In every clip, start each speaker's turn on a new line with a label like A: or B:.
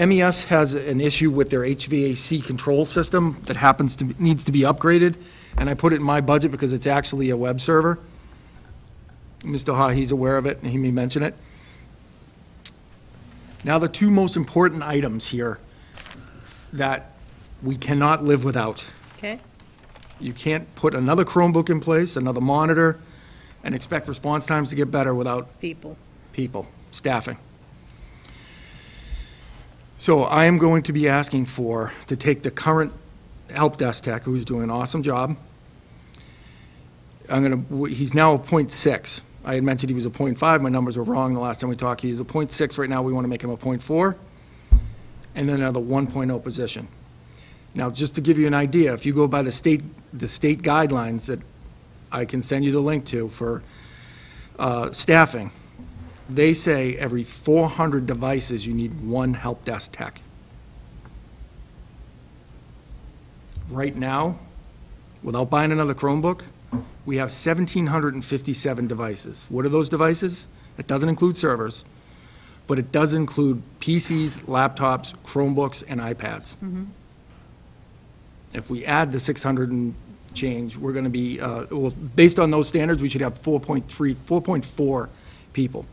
A: MES E has an issue with their HVAC control system that happens to, needs to be upgraded, and I put it in my budget because it's actually a web server. Mr. Hahi's aware of it, and he may mention it. Now, the two most important items here that we cannot live without.
B: Okay,
A: You can't put another Chromebook in place, another monitor, and expect response times to get better without
B: people.
A: people, staffing. So I am going to be asking for, to take the current help desk tech, who's doing an awesome job. I'm gonna, he's now a point six. I had mentioned he was a point five, my numbers were wrong the last time we talked, he's a point six right now, we wanna make him a point four, and then another one oh position. Now, just to give you an idea, if you go by the state, the state guidelines that I can send you the link to for, uh, staffing, they say every 400 devices, you need one help desk tech. Right now, without buying another Chromebook, we have 1,757 devices. What are those devices? It doesn't include servers, but it does include PCs, laptops, Chromebooks, and iPads. If we add the 600 and change, we're going to be, uh, well, based on those standards, we should have 4.3, 4.4 people.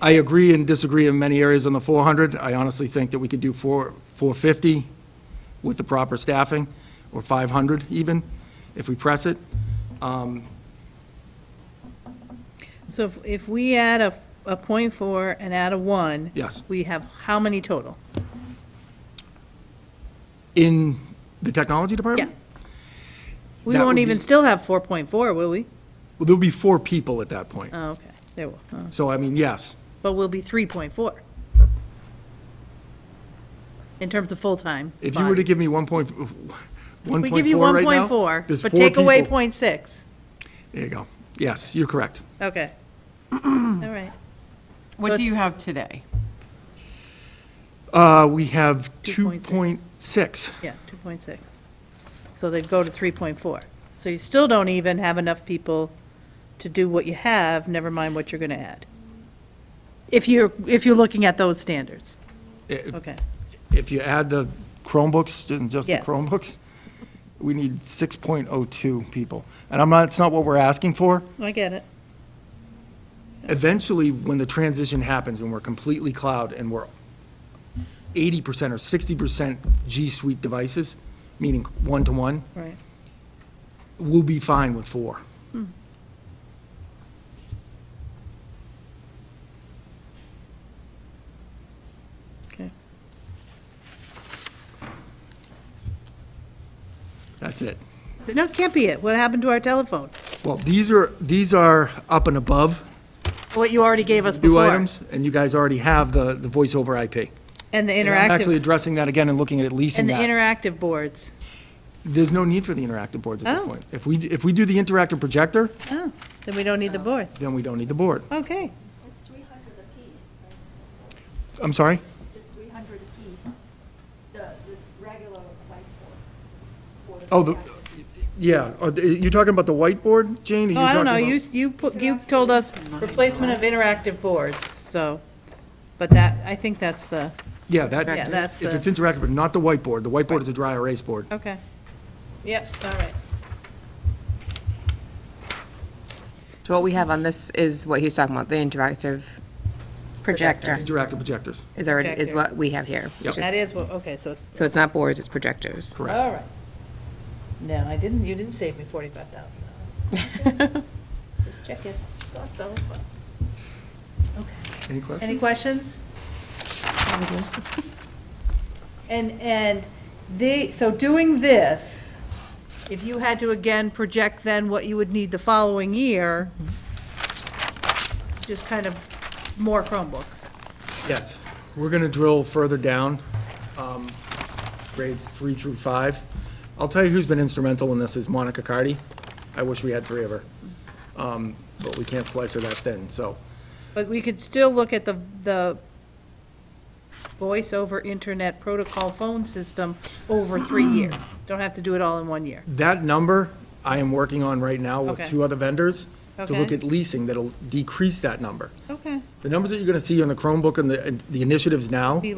A: I agree and disagree in many areas on the 400. I honestly think that we could do four- 450 with the proper staffing, or 500 even, if we press it.
B: So if- if we add a, a point four and add a one.
A: Yes.
B: We have how many total?
A: In the technology
B: Yeah.
A: department?
B: We
A: That
B: won't
A: would
B: even
A: be-
B: still have four point four, will we?
A: Well, there'll be four people at that point.
B: Oh, okay, there will, oh.
A: So, I mean, yes,
B: but we'll be three point four. In terms of full-time.
A: if you were to
B: body.
A: give me 1.4 1.4
B: We give you
A: right
B: one
A: now,
B: point four,
A: there's
B: but
A: four
B: take away
A: people.
B: point six.
A: There you go. Yes, you're correct.
B: Okay. All right. So
C: What do
B: it's-
C: you have today?
A: Uh, We have
B: 2.6.
A: 2.6.
B: Yeah, two point six. So they'd go to three point four. So you still don't even have enough people to do what you have, never mind what you're gonna add. If you're, if you're looking at those standards,
A: Eh,
B: okay.
A: If you add the Chromebooks, didn't just the
B: Yes.
A: Chromebooks, we need 6.02 people. And I'm not, it's not what we're asking for.
B: I get it.
A: Eventually, when the transition happens, when we're completely cloud and we're 80% or 60% G Suite devices, meaning one-to-one,
B: Right.
A: we'll be fine with four.
B: Okay.
A: That's it.
B: No, it can't be it. What happened to our telephone?
A: Well, these are, these are up and above
B: What you already gave us
A: new
B: before.
A: items, and you guys already have the, the voice over IP.
B: And the
A: And I'm Actually
B: interactive,
A: addressing that again and looking at leasing
B: and the
A: that.
B: interactive boards.
A: There's no need for the interactive boards at this
B: Oh.
A: point. If we, if we do the interactive projector,
B: Oh, then we don't need the board.
A: then we don't need the board.
B: Okay.
D: It's three hundred apiece, right?
A: I'm sorry?
D: It's three hundred apiece, the, the regular whiteboard. for the
A: Oh, the,
D: package.
A: yeah, Are the- you're talking about the whiteboard, Jane? Are you
B: Oh, I don't
A: talking
B: know,
A: about-
B: you, you put, you told us replacement of interactive boards, so, but that, I think that's the,
A: Yeah, that,
B: Yeah, that's
A: if
B: the-
A: it's interactive, but not the whiteboard. The whiteboard is a dry erase board.
B: okay. Yep, all right.
C: So what we have on this is what he's talking about, the interactive projector
A: Interactive projectors,
C: is already, is
B: Projector.
C: what we have here.
A: Yep.
C: which
B: That
C: is-
B: is, what- okay, so, it's-
C: So it's not boards, it's projectors.
A: correct.
B: all right. No, I didn't, you didn't save me forty-five thousand. Just check it. Thought so, but- Okay.
A: Any questions?
B: Any questions? And, and they, so doing this, if you had to again project then what you would need the following year, just kind of more Chromebooks.
A: Yes, we're going to drill further down, um, grades three through five. I'll tell you who's been instrumental in this is Monica Cardy. I wish we had three of her, Um, but we can't slice her that thin, so.
B: But we could still look at the, the voice over internet protocol phone system over three years. Don't have to do it all in one year.
A: That number, I am working on right now with
B: Okay.
A: two other vendors to look
B: Okay.
A: at leasing that'll decrease that number.
B: Okay.
A: The numbers that you're going to see on the Chromebook and the, and the initiatives now